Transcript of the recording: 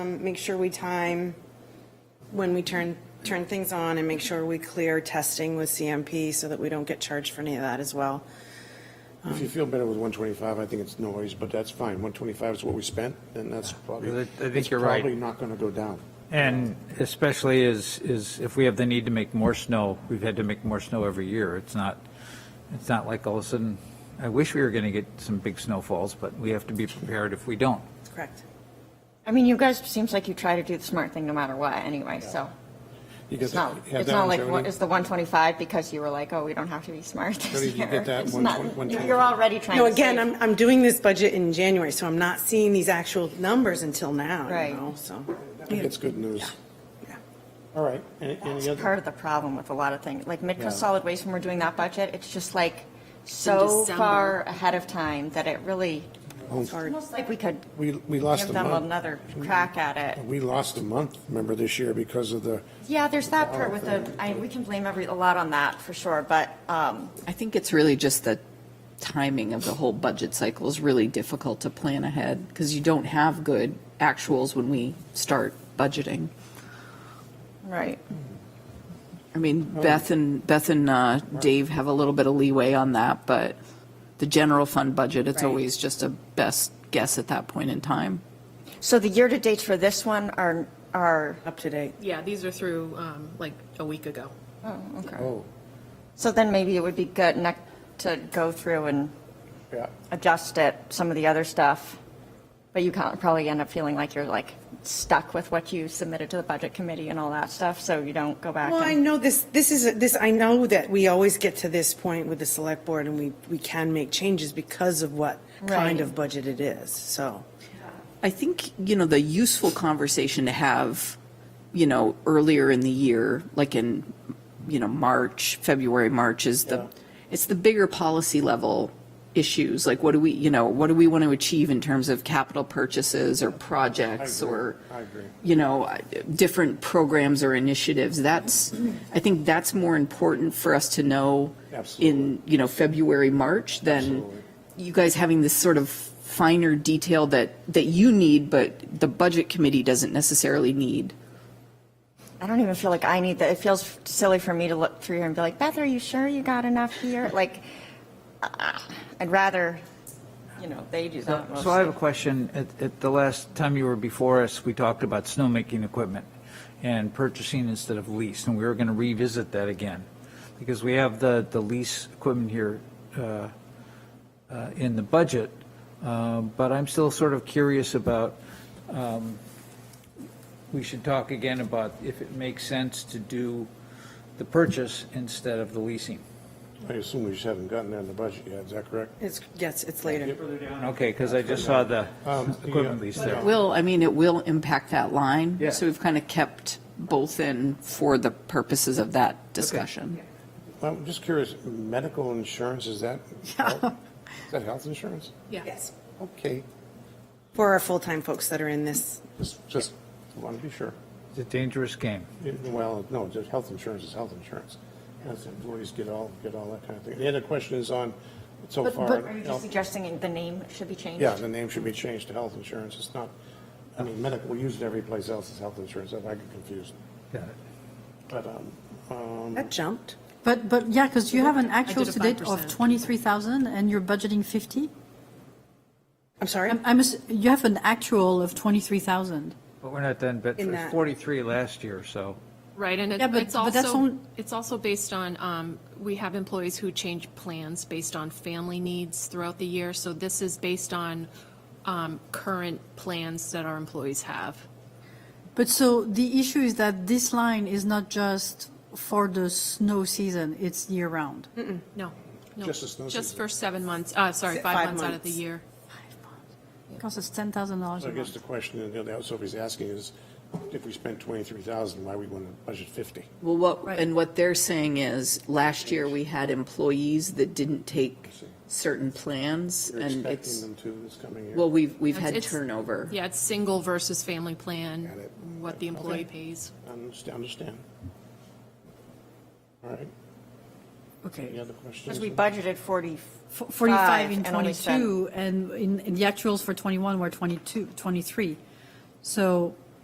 Um, Make sure we time when we turn, turn things on and make sure we clear testing with CMP so that we don't get charged for any of that as well. If you feel better with 125, I think it's noise, but that's fine. 125 is what we spent, and that's probably, I think it's you're right. probably not going to go down. And especially is, is if we have the need to make more snow, we've had to make more snow every year. It's not, it's not like all of a sudden, I wish we were going to get some big snowfalls, but we have to be prepared if we don't. That's correct. I mean, you guys, seems like you try to do the smart thing no matter what, anyway, so. You get It's that- not, have it's that not one, like, Jody? what is the 125 because you were like, oh, we don't have to be smart Jody, this did you year. get that It's one not- twen- one you're- twenty You're five? already trying No, to again, save. I'm, I'm doing this budget in January, so I'm not seeing these actual numbers until now, you Right. know, so. It's good news. yeah. All right, any any It's other? part of the problem with a lot of things, like Yeah. Midco Solid Waste, when we're doing that budget, it's just like so December. far ahead of time that it really, It's hard. almost like we could We, we lost give Oh. a them month. Oh. another crack at it. We lost a month, remember, this year because of the, Yeah, there's Oh, that part with the, I, we can blame every, a lot on that for sure, but, um, I think it's really just the timing of the whole budget cycle is really difficult to plan ahead because you don't have good actuals when we start budgeting. right. I mean, Beth and, Beth and uh, Dave have a little bit of leeway on that, but the general fund budget, it's Right. always just a best guess at that point in time. So the year-to-dates for this one are, are, Up to date. Yeah, these are through um, like a week ago. oh, so then maybe it would be good nec- to go through and yeah. adjust it, some of the other stuff. But you can't probably end up feeling like you're like stuck with what you submitted to the budget committee and all that stuff, so you don't go back Well, I and. know this, this is, this, I know that we always get to this point with the select board and we, we can make changes because of what kind Right. of budget it is, so. I think, you know, the useful conversation to have, you know, earlier in the year, like in, you know, March, February, March is the, it's the bigger policy level issues. Like what do we, you know, what do we want to achieve in terms of capital purchases or projects or, I agree. you know, different programs or initiatives? That's, I think that's more important for us to know in, you know, February, March than you guys having this sort of finer detail that, that you need, but the budget committee doesn't necessarily need. I don't even feel like I need that. It feels silly for me to look through here and be like, Beth, are you sure you got enough here? Like, ah, I'd rather, you know, they do that. So I have a mostly. question. At, at the last time you were before us, we talked about snowmaking equipment and purchasing instead of lease, and we were going to revisit that again. Because we have the, the lease equipment here uh, uh, in the budget, uh, but I'm still sort of curious about, um, we should talk again about if it makes sense to do the purchase instead of the leasing. I assume we just haven't gotten that in the budget yet, is that correct? It's, yes, it's later. Okay, because I just saw the Um, equipment yeah. lease there. Will, I mean, it will impact that line. Yeah. So we've kind of kept both in for the purposes of that discussion. I'm just curious, medical insurance, is that, health- is that health insurance? Yeah. Yes. Okay, For our full-time folks that are in this, just, just want to be sure. It's a dangerous game. Yeah, Well, no, just health insurance is health insurance. That's employees get all, get all that kind of thing. The other question is on, so But, far. but are you health- just suggesting the name should be changed? Yeah, the name should be changed to health insurance. It's not, I mean, medical, we use it every place else as health insurance. If I get confused. Got it. But, um, um, that jumped. But, but, yeah, because you have an actual did to a date of 5%. 23,000 and you're budgeting 50? I'm sorry? I'm, I'm ass- you have an actual of 23,000. But we're not done, but In it was that- 43 last year, so, Right, and it- Yeah, but- it's but that's also, on- it's also based on, um, we have employees who change plans based on family needs throughout the year. So this is based on um, current plans that our employees have. But so the issue is that this line is not just for the snow season, it's year round. No, no. Just the snow Just season. for seven months, uh, sorry, Se- five five months out of months. the year. Costs us $10,000 a so I guess month. the question that that Sophie's asking is, if we spent twenty-three thousand, why we want to budget fifty? Well, what, Right. and what they're saying is, last year, we had employees that didn't take certain plans, You're and expecting it's, them to this coming year. well, we've, we've had It's- it's- turnover. Yeah, it's single versus family plan, Got it. what the employee Okay. pays. Understand, understand. All right, any Okay. other questions? Because we budgeted 40. F- 45 in and only spent- 22 and in, in the actuals for 21 were 22, 23. So